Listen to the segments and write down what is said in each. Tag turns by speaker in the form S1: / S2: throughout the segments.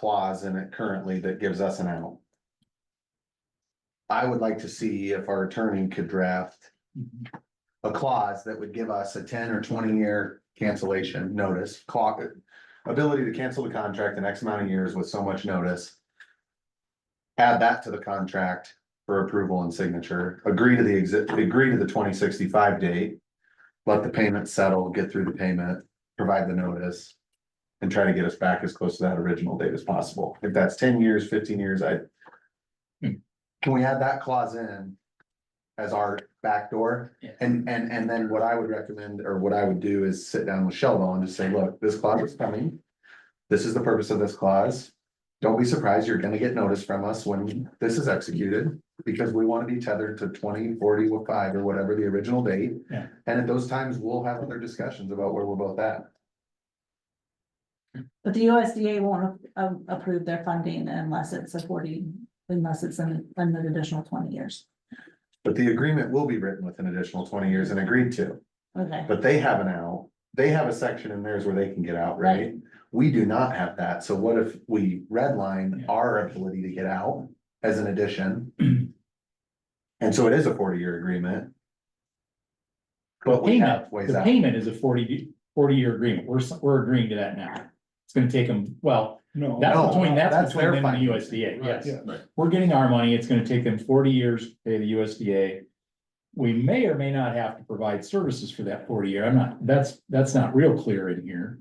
S1: clause in it currently that gives us an out. I would like to see if our attorney could draft a clause that would give us a ten or twenty year cancellation notice, clock. Ability to cancel the contract in X amount of years with so much notice. Add that to the contract for approval and signature, agree to the exit, agree to the twenty sixty-five date. Let the payment settle, get through the payment, provide the notice. And try to get us back as close to that original date as possible. If that's ten years, fifteen years, I. Can we add that clause in? As our backdoor? And, and, and then what I would recommend, or what I would do is sit down with Sheldon and just say, look, this clause is coming. This is the purpose of this clause. Don't be surprised, you're gonna get notice from us when this is executed, because we wanna be tethered to twenty, forty, or five, or whatever the original date.
S2: Yeah.
S1: And at those times, we'll have other discussions about where we're both at.
S3: But the USDA won't um, approve their funding unless it's a forty, unless it's an, an additional twenty years.
S1: But the agreement will be written with an additional twenty years and agreed to,
S3: Okay,
S1: but they have an out. They have a section in theirs where they can get out, right? We do not have that, so what if we redline
S2: Yeah.
S1: our ability to get out as an addition?
S2: Mhm.
S1: And so it is a forty-year agreement. But we
S2: Payment,
S1: have ways
S2: the
S1: out,
S2: payment is a 40 year agreement, we're, s- we're agreeing to that now. It's gonna take them, well,
S1: No,
S4: No.
S2: that's between,
S1: that's
S2: that's between
S1: their
S2: them and the
S1: financing,
S2: USDA, yes.
S4: Yeah.
S2: We're getting our money, it's gonna take them forty years to pay the USDA. We may or may not have to provide services for that forty year, I'm not, that's, that's not real clear in here.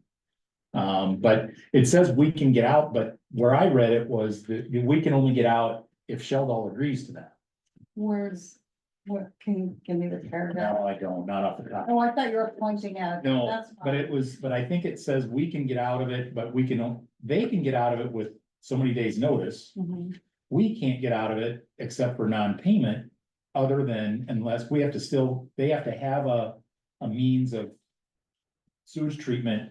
S2: Um, but it says we can get out, but where I read it was that we can only get out if Sheldon agrees to that.
S5: Words, what, can you give me the paragraph?
S2: No, I don't, not off the top.
S5: Oh, I thought you were pointing out.
S2: No,
S5: That's
S2: but
S5: fine.
S2: it was, but I think it says we can get out of it, but we can, on- they can get out of it with so many days' notice.
S5: Mm-hmm.
S3: Mhm.
S2: We can't get out of it except for non-payment, other than unless we have to still, they have to have a, a means of sewage treatment,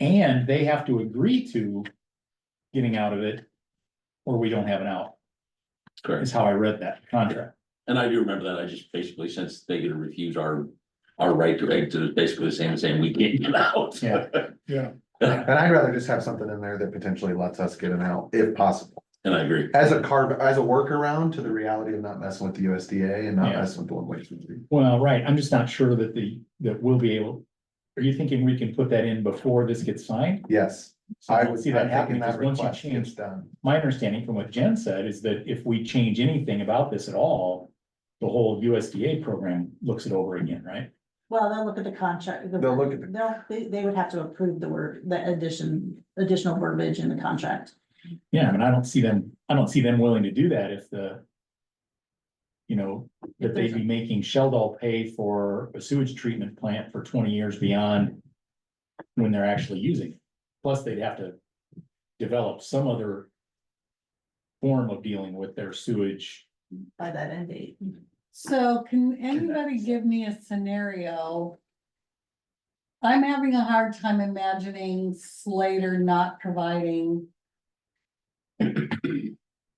S2: and they have to agree to getting out of it, or we don't have an out,
S4: Correct.
S2: is how I read that contract.
S4: And I do remember that. I just basically, since they could refuse our, our right to exit, it's basically the same as saying we can't get out.
S2: Yeah.
S1: and I'd rather just have something in there that potentially lets us get an out, if possible.
S4: And I agree.
S1: As a carve, as a workaround to the reality of not messing with the USDA and not
S2: Yeah.
S1: messing with the one way street.
S2: Well, right, I'm just not sure that the, that we'll be able, are you thinking we can put that in before this gets signed?
S1: Yes,
S2: So
S1: I
S2: don't
S1: was,
S2: See that
S1: I'm thinking
S2: happening, because
S1: that
S2: once
S1: request
S2: you
S1: gets
S2: change,
S1: done.
S2: my understanding from what Jen said is that if we change anything about this at all, the whole USDA program looks it over again, right?
S3: well, they'll look at the contract. the-
S1: They'll look at the-
S3: They'll, they, they would have to approve the word, the addition, additional verbiage in the contract.
S2: Yeah, I mean, I don't see them, I don't see them willing to do that if the you know, that they'd be making Sheldon pay for a sewage treatment plant for twenty years beyond when they're actually using it. Plus, they'd have to develop some other form of dealing with their sewage.
S3: By that end date.
S5: So can anybody give me a scenario? I'm having a hard time imagining Slater not providing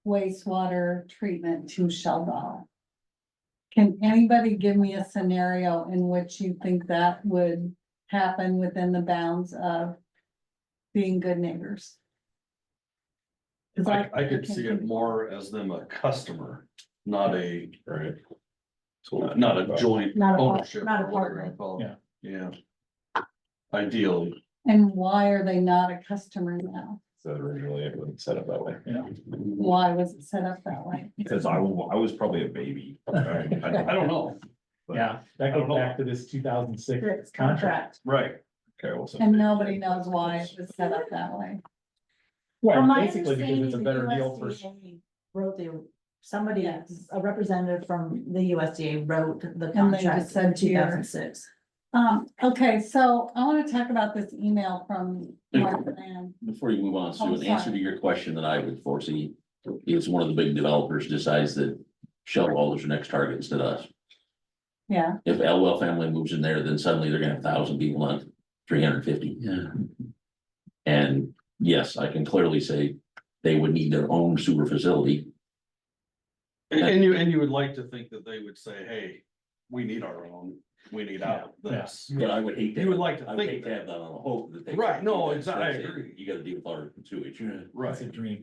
S5: wastewater treatment to Sheldon. Can anybody give me a scenario in which you think that would happen within the bounds of being good neighbors? 'Cause
S6: I, I could see
S5: can't
S6: it more as them a customer, not a. Right. Not a joint
S3: Not a,
S6: ownership.
S3: part- not a
S6: or whatever
S3: partner.
S6: you call it. Yeah. Ideally.
S5: And why are they not a customer now?
S7: So originally it wasn't set up that way.
S2: Yeah.
S5: Why was it set up that way?
S7: Because I was, I was probably a baby. I
S6: I don't know.
S2: Yeah, that
S6: I
S2: goes
S6: don't know.
S2: back to this two thousand six
S3: It's
S2: contract.
S3: contract.
S6: Right.
S7: Okay, well. so-
S5: And nobody knows why it was set up that way.
S2: Well,
S3: From my
S2: basically because it's a
S3: understanding,
S2: better
S3: the
S2: deal for,
S3: USDA Wrote the, somebody,
S5: Yes.
S3: a representative from the USDA wrote the
S5: And they
S3: contract
S5: just
S3: in
S5: said
S3: two
S5: here-
S3: thousand six.
S5: Um, okay, so I wanna talk about this email from Mark Land.
S4: Before you move on,
S5: Oh,
S4: Sue, in answer
S5: sorry.
S4: to your question that I would foresee, is one of the big developers decides that Shell is your next target instead of us.
S5: Yeah,
S4: If Elwell family moves in there, then suddenly they're gonna have thousand people on three hundred fifty. Yeah. And yes, I can clearly say they would need their own sewer facility.
S6: And, and you, and you would like to think that they would say, hey, we need our own. we need out of this.
S4: But I would hate to.
S6: You would like to
S4: I would
S6: think
S4: hate to
S6: that.
S4: have that on a hope that they.
S6: Right, no,
S4: That's-
S6: exactly, I
S4: that's it.
S6: agree.
S4: You gotta deal with our
S2: It's
S4: sewage.
S2: a
S6: Right.
S2: dream.